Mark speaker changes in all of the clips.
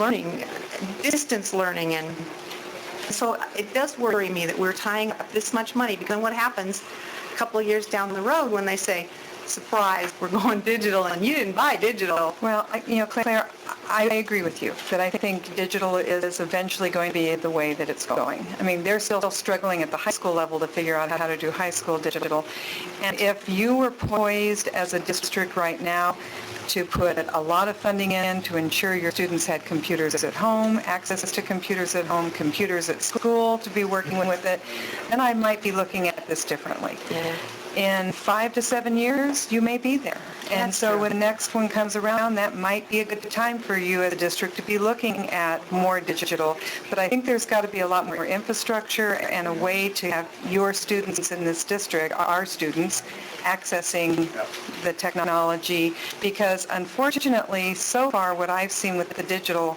Speaker 1: learning, distance learning, and so it does worry me that we're tying up this much money, because then what happens a couple of years down the road when they say, surprise, we're going digital, and you didn't buy digital?
Speaker 2: Well, I- you know, Claire, I I agree with you, that I think digital is eventually going to be the way that it's going. I mean, they're still struggling at the high school level to figure out how to do high school digital. And if you were poised as a district right now to put a lot of funding in to ensure your students had computers at home, access to computers at home, computers at school to be working with it, then I might be looking at this differently in five to seven years, you may be there. And
Speaker 1: That's
Speaker 2: so
Speaker 1: true.
Speaker 2: when the next one comes around, that might be a good time for you as a district to be looking at more digital. But I think there's got to be a lot more infrastructure and a way to have your students in this district, our students, accessing the technology. Because unfortunately, so far, what I've seen with the digital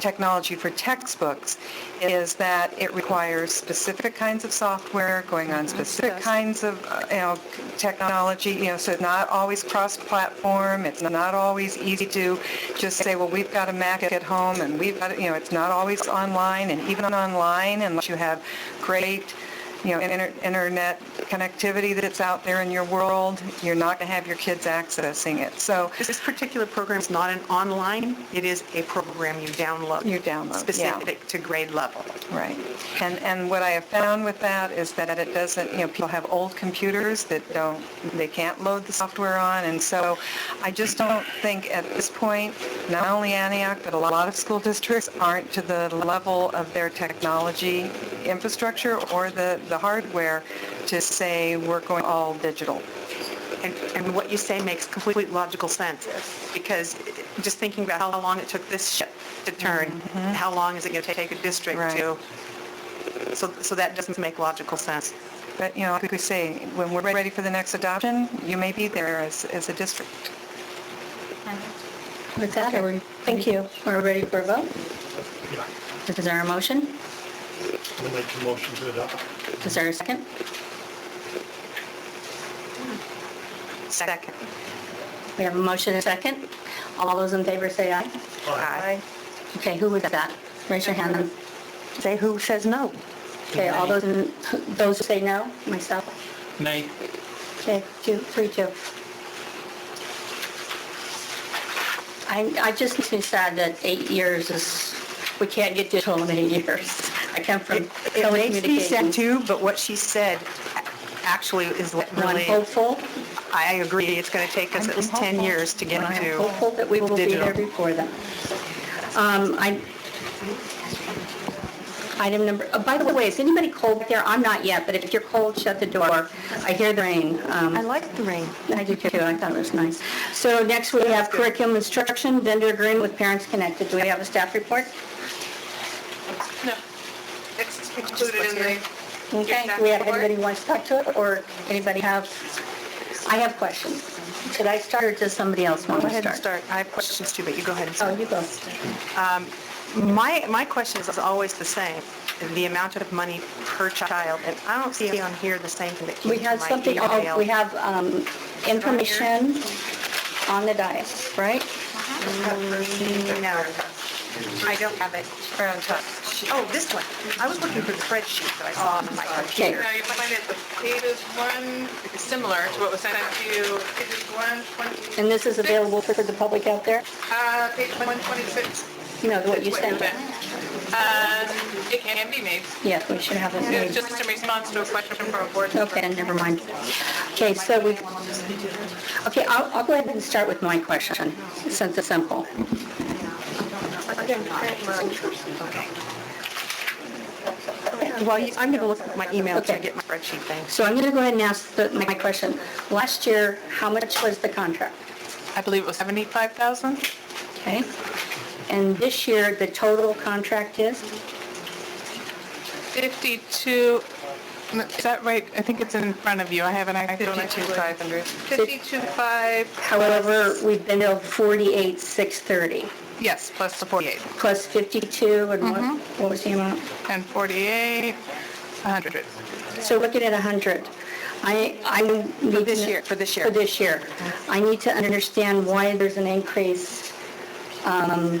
Speaker 2: technology for textbooks is that it requires specific kinds of software going on specific
Speaker 1: does.
Speaker 2: kinds of, uh, you know, technology, you know, so it's not always cross-platform, it's not always easy to just say, well, we've got a Mac at home and we've got, you know, it's not always online and even online unless you have great, you know, inter- internet connectivity that's out there in your world, you're not going to have your kids accessing it. So
Speaker 1: This particular program is not an online, it is a program you download.
Speaker 2: You download, yeah.
Speaker 1: Specific to grade level.
Speaker 2: Right. And, and what I have found with that is that it doesn't, you know, people have old computers that don't, they can't load the software on, and so I just don't think at this point, not only Antioch, but a lot of school districts aren't to the level of their technology infrastructure or the, the hardware to say, we're going all digital.
Speaker 1: And, and what you say makes complete logical sense. Because just thinking about how long it took this ship to turn, how long is it going to take a district
Speaker 2: Right.
Speaker 1: to? So, so that doesn't make logical sense.
Speaker 2: But, you know, like we say, when we're ready for the next adoption, you may be there as, as a district.
Speaker 3: With that, are we- thank you. Are we ready for a vote?
Speaker 4: Yeah,
Speaker 3: Is there a motion?
Speaker 4: we'll make the motion to adopt.
Speaker 3: Is there a second?
Speaker 1: Second.
Speaker 3: We have a motion and a second. All those in favor say aye.
Speaker 1: Aye.
Speaker 3: Okay, who was that? Raise your hand. and-
Speaker 1: Say who says no.
Speaker 3: Okay, all those, in- those who say no, myself.
Speaker 4: Nay.
Speaker 3: Okay, two, three, two. I, I just makes me sad that eight years is, we can't get digital in eight years. I come from
Speaker 1: It it makes me sad
Speaker 3: telecommunications.
Speaker 1: too, but what she said actually is what
Speaker 3: I'm
Speaker 1: really,
Speaker 3: hopeful.
Speaker 1: I agree, it's going to take us at least 10 years to get
Speaker 3: I'm
Speaker 1: to.
Speaker 3: hopeful that we will be
Speaker 1: digital.
Speaker 3: there before them. Um, I, item number, oh, by the way, is anybody cold back there? I'm not yet, but if you're cold, shut the door. I hear the rain. Um,
Speaker 1: I like the ring.
Speaker 3: I do too, I thought it was nice. So next we have curriculum instruction, vendor agreement with Parents Connected. Do we have a staff report?
Speaker 5: It's included in the,
Speaker 3: Okay, do we have anybody who wants to talk to it, or anybody have, I have questions. Should I start, or does somebody else want
Speaker 1: Go
Speaker 3: to
Speaker 1: ahead
Speaker 3: start?
Speaker 1: and start, I have questions too, but you go ahead and start.
Speaker 3: Oh, you go.
Speaker 1: My, my question is always the same, the amount of money per child, and I don't see on here the same thing that came
Speaker 3: We
Speaker 1: to
Speaker 3: have
Speaker 1: my
Speaker 3: something,
Speaker 1: email.
Speaker 3: oh, we have um, information on the dais, right?
Speaker 1: No, I don't have it.
Speaker 2: Brown top.
Speaker 1: Oh, this one. I was looking for the spreadsheet that I saw on my
Speaker 3: Okay,
Speaker 1: computer.
Speaker 5: now you find it, the date is one, it's similar to what was sent to you, It is one twenty,
Speaker 3: and this is available for the public out there?
Speaker 5: uh, page one twenty-six.
Speaker 3: You know, what you sent.
Speaker 5: Um, It can be made.
Speaker 3: Yes, we should have it
Speaker 5: It's
Speaker 3: made.
Speaker 5: just in response to a question from a board member.
Speaker 3: Okay, never mind. Okay, so we, okay, I'll, I'll go ahead and start with my question, since it's simple.
Speaker 1: Well, you- I'm going to look at my email to
Speaker 3: Okay.
Speaker 1: get my spreadsheet thing.
Speaker 3: So I'm going to go ahead and ask the- my question. Last year, how much was the contract?
Speaker 5: I believe it was seventy-five thousand?
Speaker 3: Okay? And this year, the total contract is?
Speaker 5: Fifty-two, is that right? I think it's in front of you, I haven't actually.
Speaker 2: five hundred.
Speaker 5: Fifty-two five,
Speaker 3: However, we've been billed 48, 630,
Speaker 5: yes, plus the forty-eight,
Speaker 3: plus 52, and what,
Speaker 1: Mm-hmm.
Speaker 3: what was the amount?
Speaker 5: and forty-eight, a hundred.
Speaker 3: So looking at 100, I, I need to... For
Speaker 1: this year, for this year.
Speaker 3: For this year. I need to understand why there's an increase um,